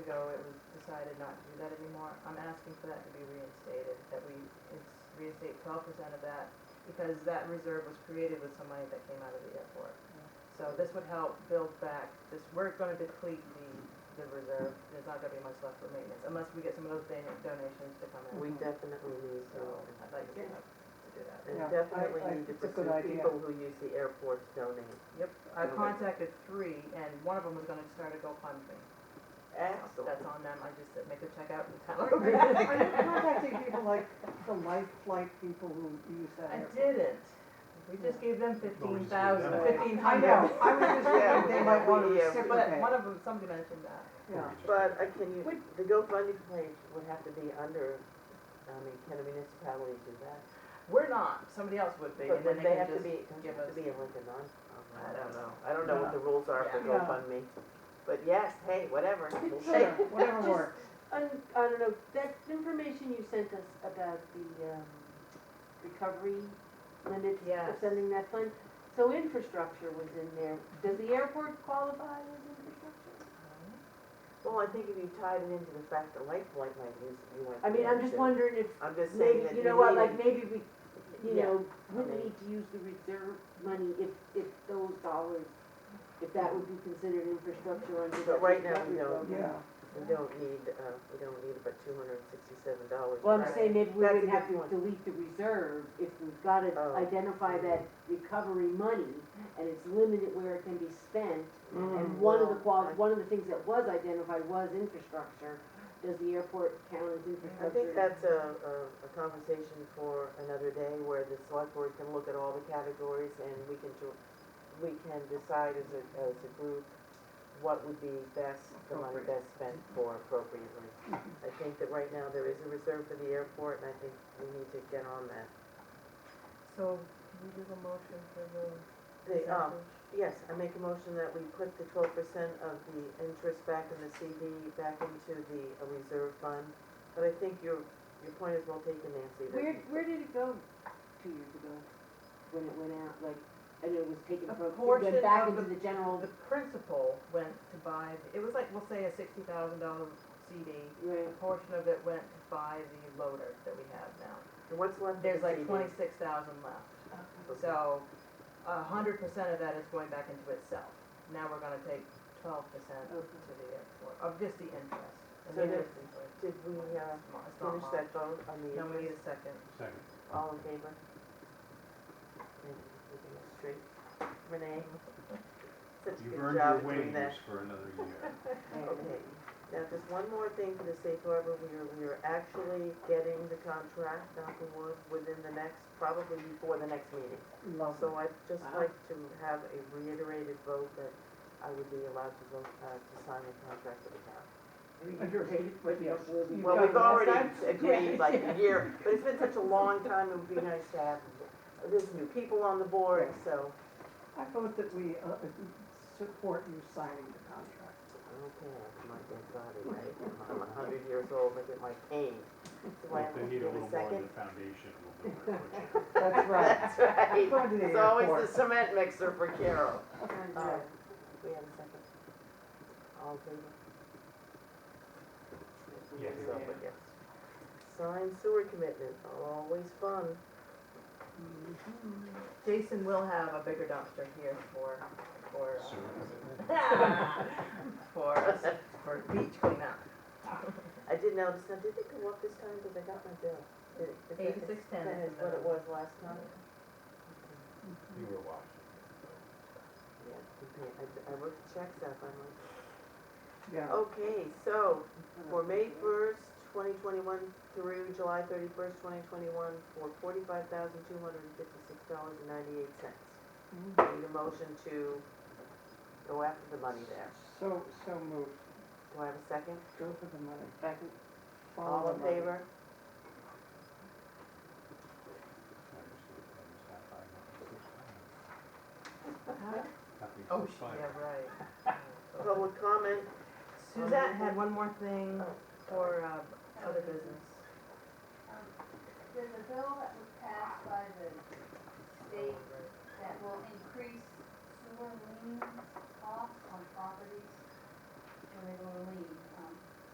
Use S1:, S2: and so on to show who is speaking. S1: ago, it was decided not to do that anymore. I'm asking for that to be reinstated, that we it's reinstate twelve percent of that, because that reserve was created with some money that came out of the airport. So this would help build back, this, we're gonna deplete the, the reserve, there's not gonna be much left for maintenance, unless we get some of those don- donations to come in.
S2: We definitely need
S1: So
S2: to,
S1: I'd like to see us to do that.
S2: and
S3: Yeah, I-
S2: definitely
S3: I-
S2: need to
S3: it's a good
S2: pursue
S3: idea.
S2: people who use the airport to donate.
S1: Yep, I
S2: Okay.
S1: contacted three, and one of them was gonna start a GoFundMe. That's
S2: Excellent.
S1: on them, I just said, make a check out and tell
S3: Are
S1: them.
S3: you contacting people like the life flight people who use that
S1: I
S3: airport?
S1: didn't. We just gave them
S4: Well, we
S1: fifteen
S4: just gave
S1: thousand,
S4: them.
S1: fifteen
S3: I
S1: hundred.
S3: know, I was just
S2: Yeah,
S3: thinking they might want to
S2: we- yeah, we-
S1: But
S3: reciprocate.
S1: one of them, somebody mentioned that.
S3: Yeah.
S2: But uh, can you, the GoFundMe page would have to be under, I mean, can a municipality do that?
S1: We're not, somebody else would be,
S2: But
S1: and then
S2: would they
S1: they
S2: have
S1: can
S2: to
S1: just.
S2: be, does it
S1: give
S2: have to
S1: us-
S2: be in Lincoln non?
S1: I
S2: I don't
S1: don't
S2: know, I don't know what
S3: Yeah.
S2: the rules are for
S3: Yeah.
S2: GoFundMe, but yes, hey, whatever, we'll
S3: Sure,
S2: shake.
S3: whatever
S5: Just-
S3: works.
S5: I, I don't know, that information you sent us about the, um, recovery limits for
S1: Yes.
S5: sending that fund. So infrastructure was in there. Does the airport qualify as infrastructure?
S2: Well, I think if you tied it into the fact that life flight might use, you want.
S5: I mean, I'm just
S2: to-
S5: wondering if,
S2: I'm just saying that
S5: maybe,
S2: you
S5: you know what,
S2: need
S5: like,
S2: it.
S5: maybe we, you
S2: Yeah.
S5: know, wouldn't
S2: mean-
S5: need to use the reserve money if, if those dollars, if that would be considered infrastructure under
S2: But
S5: that
S2: right now,
S5: recovery
S2: we don't.
S5: program.
S3: Yeah,
S2: We don't need, uh, we don't need about two hundred and sixty-seven dollars.
S5: Well, I'm saying maybe we
S2: That's a
S5: would have
S2: good
S5: to
S2: point.
S5: delete the reserve if we've got to
S2: Oh.
S5: identify that recovery money and it's limited where it can be spent.
S2: Mm,
S5: And one of the
S2: well,
S5: qual,
S2: I-
S5: one of the things that was identified was infrastructure. Does the airport count as
S2: I think
S5: infrastructure?
S2: that's a, a, a conversation for another day where the select board can look at all the categories and we can do, we can decide as a, as a group what would be best, the money best spent for appropriately. I think that right now there is a reserve for the airport and I think we need to get on that.
S1: So, can we do a motion for the
S2: The, um,
S1: percentage?
S2: Yes, I make a motion that we put the twelve percent of the interest back in the CD, back into the uh, reserve fund. But I think your, your point is well taken, Nancy. that-
S5: Where, where did it go two years ago when it went out, like, and it was taken
S1: A
S5: from, it
S1: portion
S5: went back
S1: of
S5: into
S1: the-
S5: the general,
S1: The principal went to buy, the- it was like, we'll say a sixty thousand dollar CD.
S5: right?
S1: A portion of it went to buy the loader that we have now.
S2: And what's left of the
S1: There's
S2: CD?
S1: like twenty-six thousand left. So a hundred percent of that is going back into itself. Now we're gonna take twelve percent to the
S5: Okay.
S1: airport, of just the interest. And
S2: So
S1: the
S2: there-
S1: interest is like-
S2: Did we,
S1: it's
S2: uh,
S1: not- it's not
S2: finish
S1: much.
S2: that vote on the
S1: No, we need
S2: interest?
S1: a second.
S4: Second.
S2: All in favor? Maybe we can get straight. Renee? Such a
S4: You've
S2: good
S4: earned your
S2: job doing
S4: wages
S2: that.
S4: for another year.
S2: Okay, now just one more thing for the safe harbor, we are, we are actually getting the contract, knock on wood, within the next, probably before the next meeting.
S3: lovely.
S2: So I'd just
S5: Wow.
S2: like to have a reiterated vote that I would be allowed to vote, uh, to sign the contract with the town.
S3: Agreed, but yes. You've
S2: Well,
S3: done
S2: we've
S3: it.
S2: already
S3: That's-
S2: agreed like a year, but it's been such a long time, it would be nice to have, there's new people on the board, so.
S3: I vote that we uh, support you signing the contract.
S2: Okay, that's my dead body, right? I'm a hundred years old, look at my cane. Do I have to
S4: They need a
S2: give
S4: little
S2: a
S4: more
S2: second?
S4: of the foundation, a little bit more.
S3: That's right.
S2: That's right.
S3: I'm going to the
S2: It's always the
S3: airport.
S2: cement mixer for Carol.
S5: Okay.
S2: Uh, We have a second. All in favor?
S4: Yes.
S2: So, but yes. Sign sewer commitment, always fun.
S1: Jason will have a bigger dumpster here for, for, uh,
S4: Sewer.
S1: for, us- for beach cleanup.
S2: I did notice, now did it go up this time, because I got my bill? Did it- is that-
S1: Eighty-six ten
S2: That is what it was last time?
S4: You were watching.
S2: Yeah, we pay- I, I wrote the checks up, I'm like,
S3: Yeah.
S2: okay, so for May first, twenty twenty-one through July thirty-first, twenty twenty-one, for forty-five thousand, two hundred and fifty-six dollars and ninety-eight cents.
S3: Mhm.
S2: Need a motion to go after the money there.
S3: So, so moved.
S2: Do I have a second?
S3: Go for the money.
S5: Second.
S3: Follow
S2: All
S3: the
S2: in
S3: money.
S2: favor?
S1: Oh, sh- yeah, right. Oh,
S2: Public comment?
S1: so- Suzette had one more
S2: Oh,
S1: thing for, uh, other business.
S6: There's a bill that was passed by the state that will increase sewer lien costs on properties when they go to leave. um,